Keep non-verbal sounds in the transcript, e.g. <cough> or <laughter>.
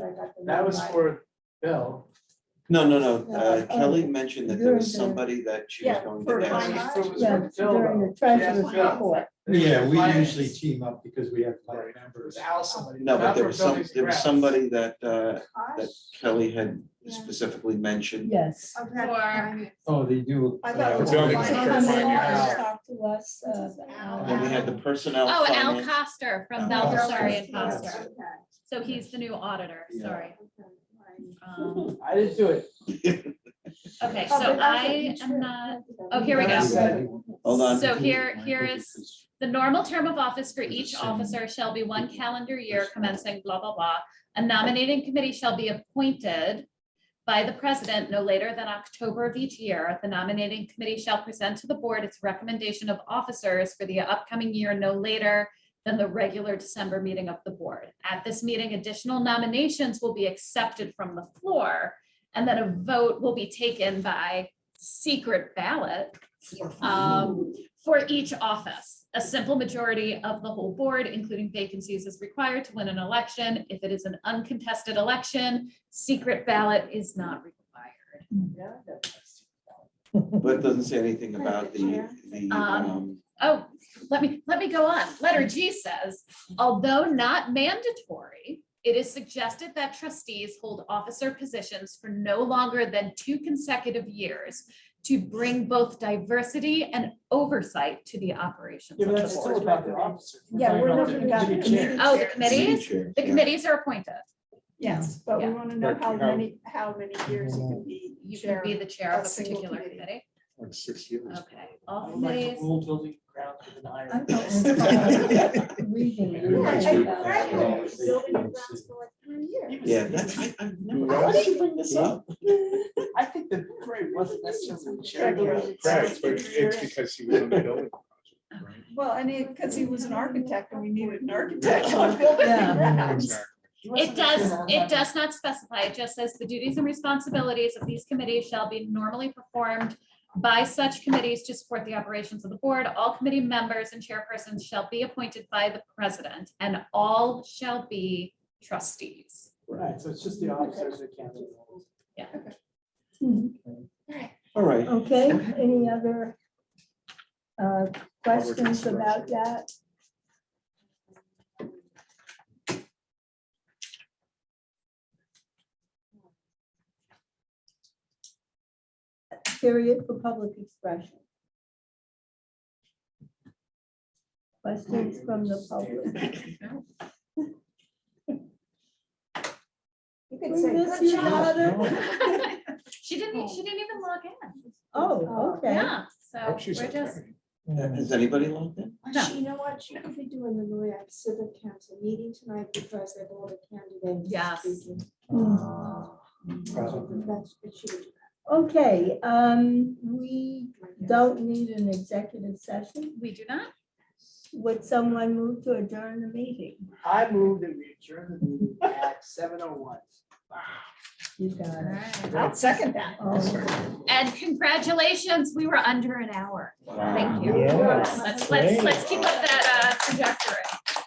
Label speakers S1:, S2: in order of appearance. S1: I got the
S2: That was
S1: wrong line.
S2: for Bill.
S3: No, no, no, uh,
S4: No, oh.
S3: Kelly mentioned that there was
S4: During the-
S3: somebody that she was
S1: Yeah,
S3: going
S1: for
S3: to
S1: Yes.
S3: ask.
S1: finance.
S2: It was
S4: Yeah,
S2: for Bill,
S4: during
S2: though.
S4: the treasurer's
S2: Yeah.
S4: report.
S5: Yeah, we
S2: Finance.
S5: usually team up because we have five
S2: It
S5: members.
S2: was Al somebody.
S3: No, but
S2: not
S3: there
S2: for
S3: was some,
S2: buildings and
S3: there was
S2: grounds.
S3: somebody that, uh, that
S1: Cost
S3: Kelly had
S1: Yeah.
S3: specifically mentioned.
S4: Yes.
S1: of that
S6: Or,
S1: line.
S5: Oh, they do.
S1: I thought it
S5: uh,
S1: was
S7: Building
S1: line.
S7: construction.
S4: Come
S7: Finance.
S4: along, talk to us. uh,
S3: And then we had the personnel.
S6: oh, Al
S3: finance-
S6: Coster from
S5: Al
S6: Bell, sorry, and
S5: Coster, yes.
S6: Foster. So he's the new auditor,
S3: Yeah.
S6: sorry.
S3: <laughs>
S6: Um,
S2: I didn't do it.
S6: Okay,
S1: Oh,
S6: so I am not, oh, here we go.
S3: Hold on.
S6: So here, here is The normal term of office for each officer shall be one calendar year commencing blah, blah, blah. A nominating committee shall be appointed by the president no later than October of each year. The nominating committee shall present to the board its recommendation of officers for the upcoming year no later than the regular December meeting of the board. At this meeting, additional nominations will be accepted from the floor, and then a vote will be taken by secret ballot um, for each office. A simple majority of the whole board, including vacancies, is required to win an election. If it is an uncontested election, secret ballot is not required.
S3: <laughs> But it doesn't say anything about the, the,
S6: Um,
S3: um,
S6: Oh, let me, let me go on. Letter G says, although not mandatory, it is suggested that trustees hold officer positions for no longer than two consecutive years to bring both diversity and oversight to the operations
S2: Yeah,
S6: of
S2: but
S6: the
S2: that's still
S6: board.
S2: about the officers.
S4: Yeah,
S2: talking
S4: we're
S2: about
S4: looking at the
S2: chair.
S4: committee.
S6: Oh, the
S3: committee
S6: committees,
S3: chair.
S6: the
S3: yeah.
S6: committees are appointed.
S4: Yes.
S1: But we
S6: Yeah.
S1: want to know how
S5: Like, how-
S1: many, how many years you can be
S6: You
S1: chair.
S6: can be the chair
S1: a
S6: of a
S1: single
S6: particular
S1: committee.
S6: committee.
S3: Like six years.
S6: Okay,
S2: I
S6: all
S2: would like to
S6: committees.
S2: rule building grounds with an
S4: I'm
S2: iron. <laughs>
S3: <laughs>
S4: not reading it.
S5: Yeah,
S1: Yeah,
S5: it's
S1: and
S5: good.
S1: Brad was
S5: Yeah.
S1: building the grounds for like three years.
S3: <laughs> Yeah, that's, I,
S2: <laughs>
S3: I've never,
S5: Right.
S3: why did you bring this up?
S2: I think the parade wasn't necessarily
S1: Right,
S2: charitable.
S1: right.
S7: Right, but it's because he was on the building.
S1: Well, and it, because he was an architect and we needed an architect on building
S4: Yeah.
S1: grounds.
S7: project.
S2: He wasn't
S6: It does,
S2: necessarily-
S6: it does not specify, it just says the duties and responsibilities of these committees shall be normally performed by such committees to support the operations of the board. All committee members and chairpersons shall be appointed by the president and all shall be trustees. <laughs>
S2: Right, so it's just the officers that can't.
S3: All right,
S4: Okay, any other uh, questions about that? Period for public expression. Questions from the public?
S1: You could
S4: Bring
S1: say,
S4: this,
S1: good
S4: you
S1: job.
S4: daughter.
S6: She didn't, she didn't even log in.
S4: Oh, okay.
S6: Yeah,
S7: I
S6: so
S7: hope
S6: we're
S7: she's okay.
S6: just,
S3: has anybody logged in?
S6: No.
S1: You know what, you could Uh, be doing the Noyak Civic Council meeting tonight because they have all the candidates.
S6: Yes.
S1: speaking.
S4: Mm.
S1: That's, it should.
S4: Okay, um, we don't need an executive session.
S6: we do not.
S4: Would someone move to adjourn the meeting?
S2: I moved and we adjourned the meeting at seven oh one.
S4: You got it.
S1: I'll second that.
S4: Oh,
S6: And congratulations, we were under an hour. Thank you.
S5: Yeah.
S6: Let's, let's, let's keep up that uh, trajectory.